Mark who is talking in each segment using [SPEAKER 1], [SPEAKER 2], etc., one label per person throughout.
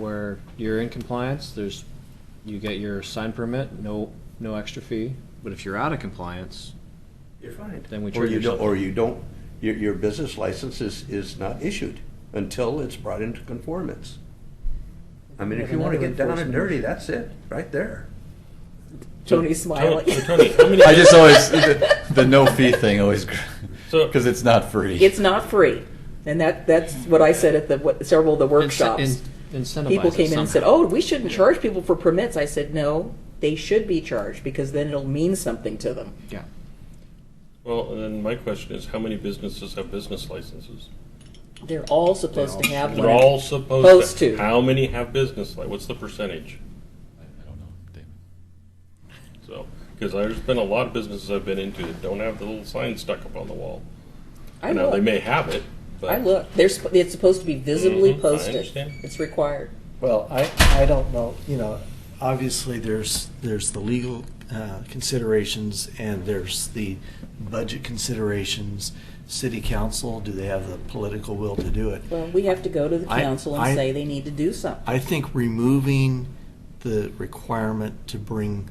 [SPEAKER 1] where you're in compliance, there's, you get your sign permit, no, no extra fee. But if you're out of compliance,
[SPEAKER 2] You're fined.
[SPEAKER 1] Then we
[SPEAKER 2] Or you
[SPEAKER 1] charge
[SPEAKER 2] don't,
[SPEAKER 1] you
[SPEAKER 2] or you don't, your, your business license is, is not issued until it's brought into conformance. I mean, if you wanna get down and dirty, that's it, right there.
[SPEAKER 3] Tony's smiling.
[SPEAKER 4] So, Tony, how many-
[SPEAKER 5] I just always the, the no fee thing always
[SPEAKER 4] So-
[SPEAKER 5] because it's not free.
[SPEAKER 3] It's not free, and that that's what I said at the what, several of the workshops.
[SPEAKER 1] Ince- in- Incentivize
[SPEAKER 3] people
[SPEAKER 1] it
[SPEAKER 3] came in and said,
[SPEAKER 1] somehow.
[SPEAKER 3] "Oh, we shouldn't charge people for permits." I said, "No, they should be charged because then it'll mean something to them."
[SPEAKER 1] Yeah.
[SPEAKER 4] Well, and then my question is, how many businesses have business licenses?
[SPEAKER 3] They're all supposed to have
[SPEAKER 4] They're
[SPEAKER 3] one.
[SPEAKER 4] all supposed,
[SPEAKER 3] Supposed
[SPEAKER 4] to.
[SPEAKER 3] to.
[SPEAKER 4] How many have business? Like, what's the percentage?
[SPEAKER 5] I don't know, David.
[SPEAKER 4] So, because there's been a lot of businesses I've been into that don't have the little sign stuck up on the wall.
[SPEAKER 3] I
[SPEAKER 4] You know,
[SPEAKER 3] look.
[SPEAKER 4] they may have it, but
[SPEAKER 3] I look. They're sp- it's supposed to be visibly
[SPEAKER 4] Mhm, I
[SPEAKER 3] posted.
[SPEAKER 4] understand.
[SPEAKER 3] It's required.
[SPEAKER 6] Well, I, I don't know, you know, obviously there's, there's the legal uh, considerations and there's the budget considerations. City council, do they have the political will to do it?
[SPEAKER 3] Well, we have to go to the
[SPEAKER 6] I-
[SPEAKER 3] council and
[SPEAKER 6] I-
[SPEAKER 3] say they need to do something.
[SPEAKER 6] I think removing the requirement to bring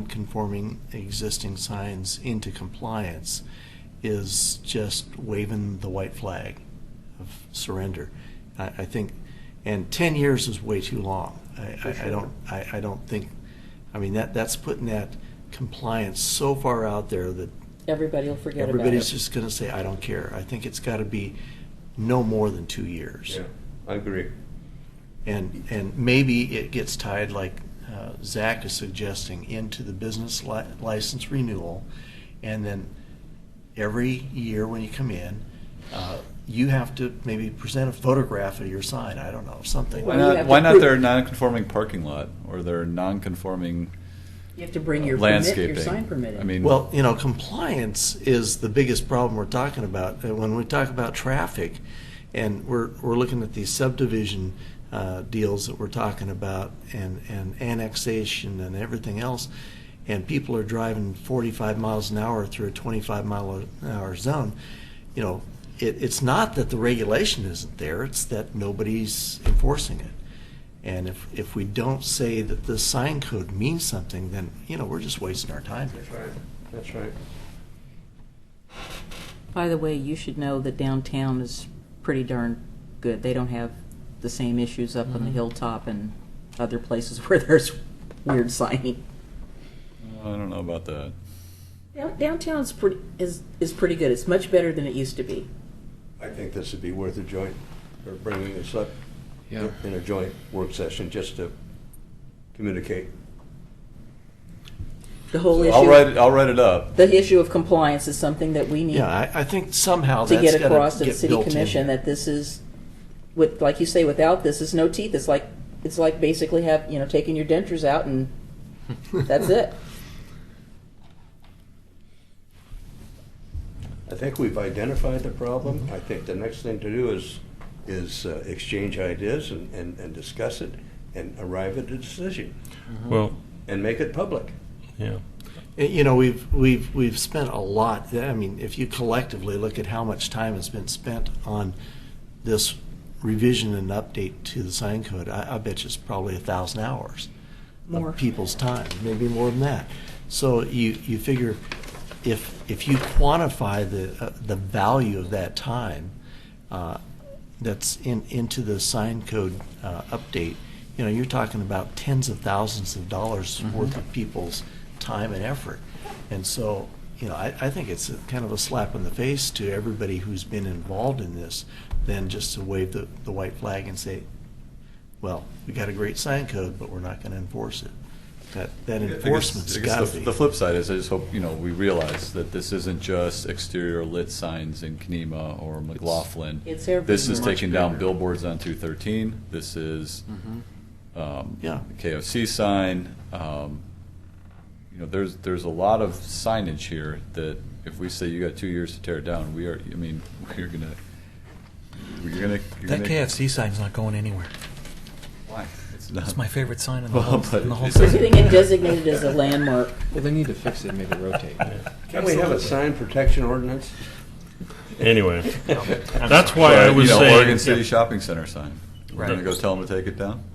[SPEAKER 6] non-conforming existing signs into compliance is just waving the white flag of surrender. I, I think, and ten years is way too long. I, I, I don't, I, I don't think, I mean, that, that's putting that compliance so far out there that
[SPEAKER 3] Everybody will forget about
[SPEAKER 6] everybody's
[SPEAKER 3] it.
[SPEAKER 6] just gonna say, I don't care. I think it's gotta be no more than two years.
[SPEAKER 2] I agree.
[SPEAKER 6] And, and maybe it gets tied, like uh, Zach is suggesting, into the business li- license renewal. And then every year when you come in, uh, you have to maybe present a photograph of your sign, I don't know, something.
[SPEAKER 3] Well,
[SPEAKER 5] Why
[SPEAKER 3] you
[SPEAKER 5] not?
[SPEAKER 3] have
[SPEAKER 5] Why
[SPEAKER 3] to
[SPEAKER 5] not
[SPEAKER 3] prove-
[SPEAKER 5] their non-conforming parking lot or their non-conforming
[SPEAKER 3] You have to bring your
[SPEAKER 5] landscaping?
[SPEAKER 3] permit, your sign permit. in.
[SPEAKER 5] I mean,
[SPEAKER 6] Well, you know, compliance is the biggest problem we're talking about. Uh, When we talk about traffic, and we're, we're looking at these subdivision uh, deals that we're talking about, and, and annexation and everything else, and people are driving 45 miles an hour through a 25 mile an hour zone, you know, it, it's not that the regulation isn't there, it's that nobody's enforcing it. And if, if we don't say that the sign code means something, then, you know, we're just wasting our time.
[SPEAKER 2] That's right, that's right.
[SPEAKER 3] By the way, you should know that downtown is pretty darn good. They don't have the same issues up
[SPEAKER 6] Mm-hmm.
[SPEAKER 3] on the hilltop and other places where there's weird signing.
[SPEAKER 5] I don't know about that.
[SPEAKER 3] Down- Downtown's pretty is is pretty good. It's much better than it used to be.
[SPEAKER 2] I think this would be worth a joint, or bringing this up
[SPEAKER 1] Yeah.
[SPEAKER 2] in a joint work session, just to communicate.
[SPEAKER 3] The whole
[SPEAKER 5] I'll
[SPEAKER 3] issue
[SPEAKER 5] write it. I'll write it up.
[SPEAKER 3] the issue of compliance is something that we need
[SPEAKER 6] Yeah, I, I think somehow
[SPEAKER 3] to
[SPEAKER 6] that's
[SPEAKER 3] get
[SPEAKER 6] gotta
[SPEAKER 3] across to the
[SPEAKER 6] get
[SPEAKER 3] city
[SPEAKER 6] built in
[SPEAKER 3] commission
[SPEAKER 6] here.
[SPEAKER 3] that this is with like you say without this is no teeth. It's like it's like basically have, you know, taking your dentures out and that's it.
[SPEAKER 2] I think we've identified the problem. I think the next thing to do is, is uh, exchange ideas and, and, and discuss it and arrive at a decision
[SPEAKER 4] well,
[SPEAKER 2] and make it public.
[SPEAKER 4] yeah.
[SPEAKER 6] Uh, You know, we've we've we've spent a lot. I mean, if you collectively look at how much time has been spent on this revision and update to the sign code, I, I bet you it's probably a thousand hours
[SPEAKER 3] More.
[SPEAKER 6] of people's time, maybe more than that. So you you figure if if you quantify the uh, the value of that time uh, that's in into the sign code uh, update, you know, you're talking about tens of thousands of dollars worth of people's time and effort. And so, you know, I, I think it's a, kind of a slap in the face to everybody who's been involved in this than just to wave the, the white flag and say, well, we got a great sign code, but we're not going to enforce it. That, that
[SPEAKER 5] I guess- I
[SPEAKER 6] enforcement's
[SPEAKER 5] guess
[SPEAKER 6] got
[SPEAKER 5] the-
[SPEAKER 6] to be.
[SPEAKER 5] The flip side is, I just hope, you know, we realize that this isn't just exterior lit signs in Kenema or McLaughlin.
[SPEAKER 3] It's everywhere.
[SPEAKER 5] This is
[SPEAKER 1] Much
[SPEAKER 5] taking down
[SPEAKER 1] bigger.
[SPEAKER 5] billboards on two thirteen, this is, um,
[SPEAKER 6] Yeah.
[SPEAKER 5] the KFC sign, um, you know, there's, there's a lot of signage here that if we say you got two years to tear it down, we are, I mean, we're gonna, we're gonna. you're
[SPEAKER 7] That
[SPEAKER 5] gonna-
[SPEAKER 7] KFC sign's not going anywhere.
[SPEAKER 5] Why? It's
[SPEAKER 7] That's
[SPEAKER 5] not.
[SPEAKER 7] my favorite sign in the
[SPEAKER 5] Well,
[SPEAKER 7] whole,
[SPEAKER 5] but
[SPEAKER 7] in the whole
[SPEAKER 5] it
[SPEAKER 3] We're
[SPEAKER 5] doesn't-
[SPEAKER 7] city.
[SPEAKER 3] getting it designated as a landmark.
[SPEAKER 1] Well, they need to fix it, and make it rotate.
[SPEAKER 2] Can we have a sign protection ordinance?
[SPEAKER 4] Anyway, that's why
[SPEAKER 5] Or,
[SPEAKER 4] I was
[SPEAKER 5] you know,
[SPEAKER 4] saying.
[SPEAKER 5] Oregon City Shopping Center sign. We're
[SPEAKER 7] Right.
[SPEAKER 5] gonna go tell them to take it down.